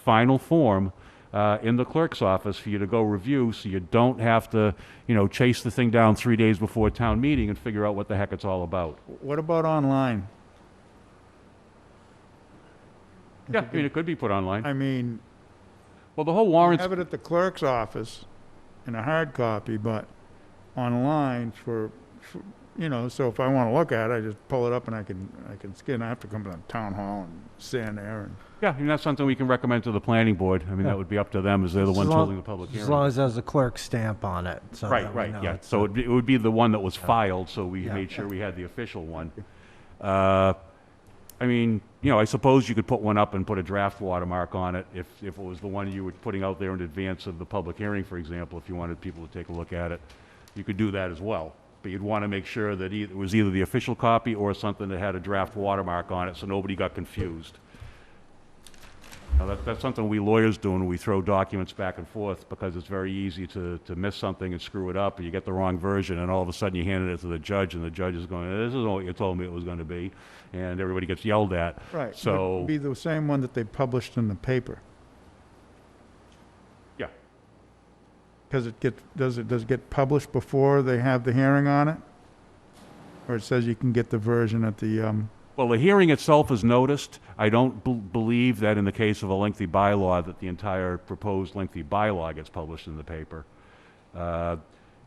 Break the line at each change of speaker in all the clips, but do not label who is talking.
final form uh, in the clerk's office for you to go review, so you don't have to, you know, chase the thing down three days before town meeting and figure out what the heck it's all about.
What about online?
Yeah, I mean, it could be put online.
I mean,
Well, the whole warrants,
have it at the clerk's office in a hard copy, but online for, for- you know, so if I want to look at it, I just pull it up and I can, I can scan. I have to come to the town hall and stand there and.
yeah, I mean, that's something we can recommend to the planning board. I mean, that would be up to them, as they're the
As
ones
long-
holding the public
As long
hearing.
as there's a clerk stamp on it, so
Right,
that we know
right, yeah.
it's
So
a-
it'd be- it would be the one that was filed, so we
Yeah.
made sure we had the official one. Uh, I mean, you know, I suppose you could put one up and put a draft watermark on it if, if it was the one you were putting out there in advance of the public hearing, for example, if you wanted people to take a look at it. You could do that as well. But you'd want to make sure that eith- it was either the official copy or something that had a draft watermark on it, so nobody got confused. Now, that, that's something we lawyers do when we throw documents back and forth, because it's very easy to, to miss something and screw it up, and you get the wrong version, and all of a sudden you hand it to the judge, and the judge is going, this is all you told me it was gonna be, and everybody gets yelled at.
Right.
So,
Be the same one that they published in the paper,
yeah,
because it gets, does it, does it get published before they have the hearing on it? Or it says you can get the version at the, um,
well, the hearing itself is noticed, I don't bel- believe that in the case of a lengthy bylaw, that the entire proposed lengthy bylaw gets published in the paper. Uh,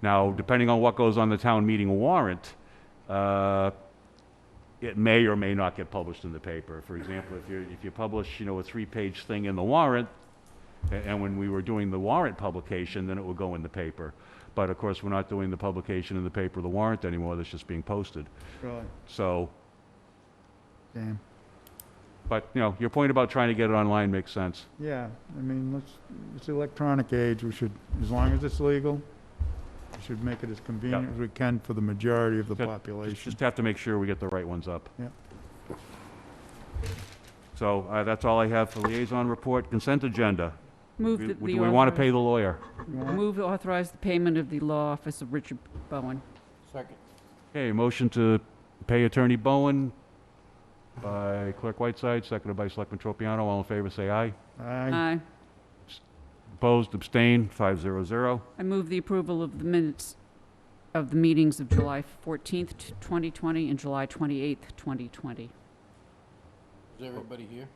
Now, depending on what goes on the town meeting warrant, uh, it may or may not get published in the paper. For example, if you, if you publish, you know, a three-page thing in the warrant, a- and when we were doing the warrant publication, then it would go in the paper. But of course, we're not doing the publication in the paper, of the warrant anymore, that's just being posted.
Really?
So,
damn.
but, you know, your point about trying to get it online makes sense.
Yeah, I mean, let's, it's the electronic age, we should, as long as it's legal, we should make it as convenient as we can for the majority of the
Yeah,
population.
Just have to make sure we get the right ones up.
Yeah.
So, uh, that's all I have for liaison report, consent agenda.
Move
Do
that the.
do we want to
authorize-
pay the lawyer?
Move to authorize the payment of the law office of Richard Bowen.
Okay, motion to pay Attorney Bowen by Clerk Whiteside, seconded by Selectman Tropiano. All in favor, say aye. uh,
Aye.
Aye.
Opposed, abstained, five zero zero.
I move the approval of the minutes of the meetings of July 14th, t- 2020, and July 28th, 2020.
Is everybody here?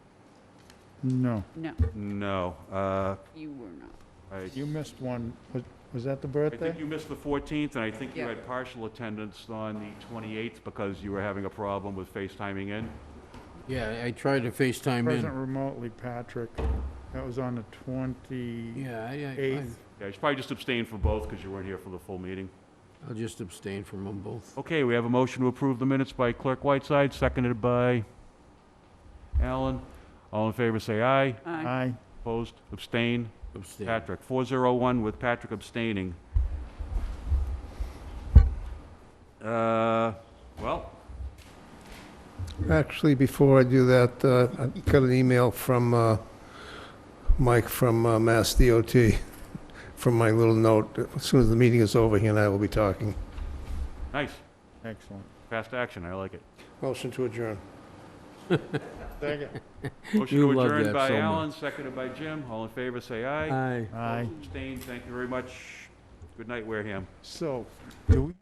No,
No,
No, uh,
you were not.
I,
you missed one, was, was that the
I think
birthday?
you missed the fourteenth, and I think you
Yeah.
had partial attendance on the twenty-eighth because you were having a problem with FaceTiming in.
Yeah, I tried to FaceTime
Present
in.
remotely, Patrick, that was on the twenty,
Yeah, I- I,
Eighth.
Yeah, you should probably just abstain for both because you weren't here for the full meeting.
I'll just abstain from them both.
Okay, we have a motion to approve the minutes by Clerk Whiteside, seconded by Allen. All in favor, say aye.
Aye.
aye,
Opposed, abstain.
Abstain.
Patrick, 401 with Patrick abstaining. Uh, Well,
Actually, before I do that, uh, I got an email from uh, Mike from uh, Mass DOT, from my little note. As soon as the meeting is over, he and I will be talking.
nice,
excellent.
fast action, I like it.
Motion to adjourn.
Second,
Motion
You
to
love
adjourn
that
by
so much.
Allen, seconded by Jim. All in favor, say aye.
Aye.
aye,
Abstain, thank you very much. Good night, Wareham.
so, do we?